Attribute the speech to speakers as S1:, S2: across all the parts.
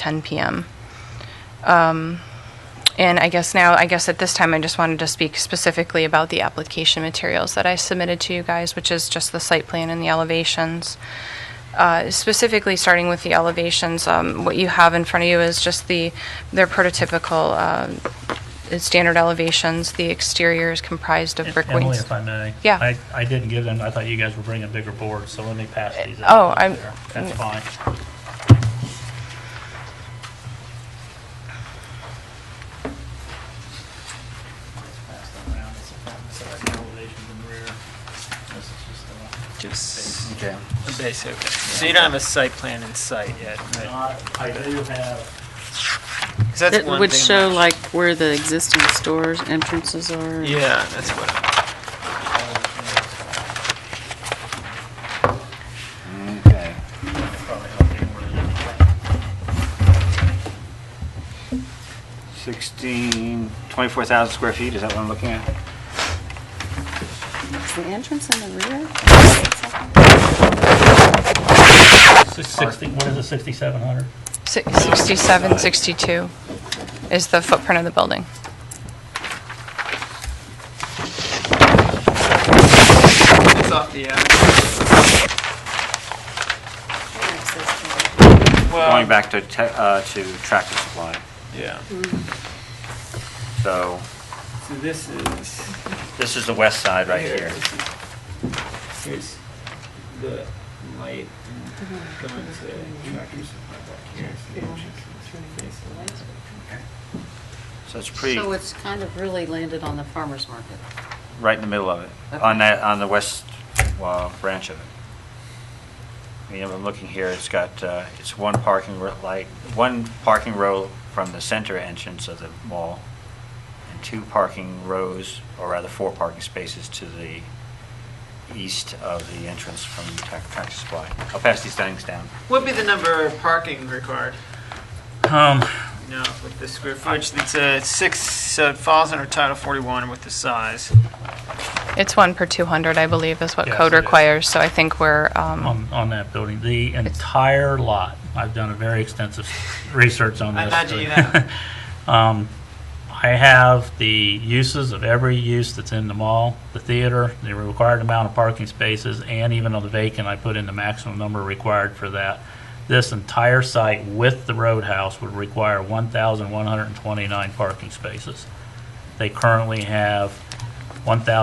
S1: 10 PM. Um, And I guess now, I guess at this time, I just wanted to speak specifically about the application materials that I submitted to you guys, which is just the site plan and the elevations. Uh, Specifically, starting with the elevations, um, what you have in front of you is just the, their prototypical uh, standard elevations. The exterior is comprised of brick
S2: Emily,
S1: wings.
S2: if I may.
S1: Yeah.
S2: I, I didn't give them, I thought you guys were bringing bigger boards, so let me pass these out.
S1: Oh, I'm-
S2: there. That's fine. Pass them around. It's a- so that's the elevations in the rear. This is just
S3: Just
S4: Okay.
S3: a base, okay. So you don't have a site plan in sight yet,
S2: the-
S3: right?
S2: Not- I do have,
S3: 'Cause that's
S5: That
S3: one
S5: would
S3: thing
S5: show
S3: that-
S5: like where the existing stores entrances are.
S3: Yeah, that's what, I-
S4: Okay.
S2: probably helping where the-
S4: 16, 24,000 square feet, is that what I'm looking at?
S5: Is the entrance in the rear?
S2: Six- 60, what is it, 6,700?
S1: Si- 67, 62 is the footprint of the building.
S3: it's off the, uh,
S4: Going
S3: well,
S4: back to, te- uh, to Tractor Supply,
S3: yeah.
S4: so
S3: So this is,
S4: this is the west side right here.
S3: here's the light going to tractors back here.
S4: So it's pretty,
S6: So it's kind of really landed on the farmer's market.
S4: right in the middle of it, on that, on the west uh, branch of it. I mean, I'm looking here, it's got, uh, it's one parking, ro- like, one parking row from the center entrance of the mall, and two parking rows, or rather, four parking spaces to the east of the entrance from Trac- Tractor Supply. I'll pass these things down.
S3: What'd be the number of parking required?
S2: Um,
S3: No, with the square footage, it's a six, so it falls under Title 41 with the size.
S1: It's one per 200, I believe, is what
S2: Yes,
S1: code
S2: it is.
S1: requires, so I think we're, um,
S2: on, on that building, the entire lot. I've done a very extensive research on
S3: I
S2: this.
S3: imagine you have.
S2: Um, I have the uses of every use that's in the mall, the theater, the required amount of parking spaces, and even on the vacant, I put in the maximum number required for that. This entire site with the roadhouse would require 1,129 parking spaces. They currently have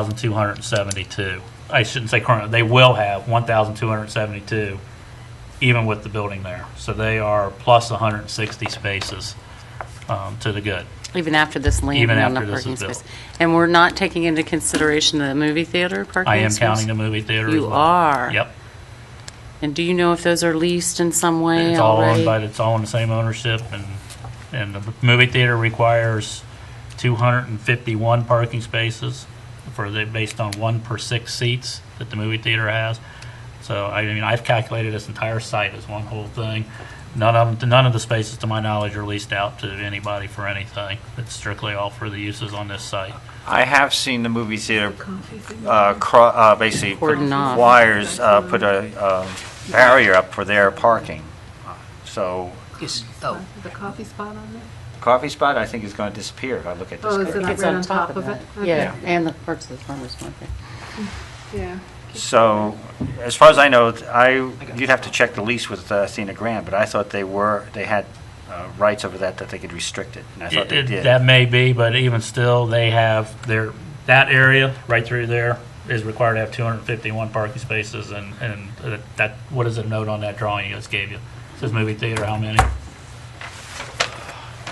S2: 1,272. I shouldn't say current, they will have 1,272, even with the building there. So they are plus 160 spaces um, to the good.
S5: Even after this landing
S2: Even
S5: on the
S2: after this
S5: parking
S2: is built.
S5: space. And we're not taking into consideration the movie theater parking
S2: I am
S5: space?
S2: counting the movie theater as
S5: You
S2: well.
S5: are.
S2: Yep.
S5: And do you know if those are leased in some way
S2: It's all
S5: already?
S2: owned by, it's all in the same ownership and, and the movie theater requires 251 parking spaces for the, based on one per six seats that the movie theater has. So I mean, I've calculated this entire site as one whole thing. None of, them- none of the spaces, to my knowledge, are leased out to anybody for anything. It's strictly all for the uses on this site.
S4: I have seen the movie theater, uh, cro- uh, basically, put
S5: Cordon off.
S4: wires, uh, put a um, barrier up for their parking. So
S6: Oh.
S7: The coffee spot on there?
S4: coffee spot, I think, is going to disappear if I look at this.
S7: Oh, is it
S4: correctly.
S7: right on top of it?
S6: that. Yeah, and the parts of the farmer's market.
S7: Yeah.
S4: So, as far as I know, I, you'd have to check the lease with uh, Athena Grand, but I thought they were, they had uh, rights over that, that they could restrict it, and I thought they
S2: It- it-
S4: did.
S2: That may be, but even still, they have their, that area right through there is required to have 251 parking spaces and, and uh, that, what is the note on that drawing you just gave you? Says movie theater, how many?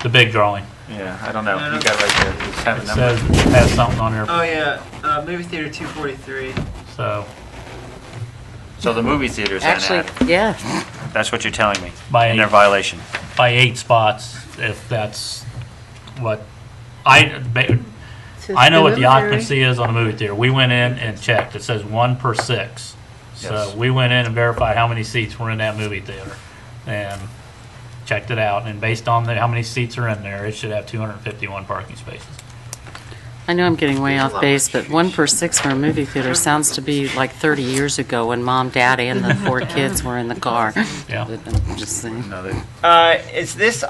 S2: The big drawing.
S4: Yeah, I don't know. You got right there. It's have
S2: It
S4: a number.
S2: says, it has something on there,
S3: Oh, yeah, uh, movie theater 243.
S2: so
S4: So the movie theater's not
S5: Actually,
S4: added.
S5: yeah.
S4: That's what you're telling me.
S2: By-
S4: And their violation.
S2: by eight spots, if that's what, I, ba- I know what the occupancy is on the movie theater. We went in and checked. It says one per six. So
S4: Yes.
S2: we went in and verified how many seats were in that movie theater and checked it out. And based on the, how many seats are in there, it should have two hundred and fifty-one parking spaces.
S5: I know I'm getting way off base, but one per six for a movie theater sounds to be like 30 years ago when mom, dad, and the four kids were in the car.
S2: Yeah.
S5: I'm just saying.
S4: Another
S3: Uh, Is this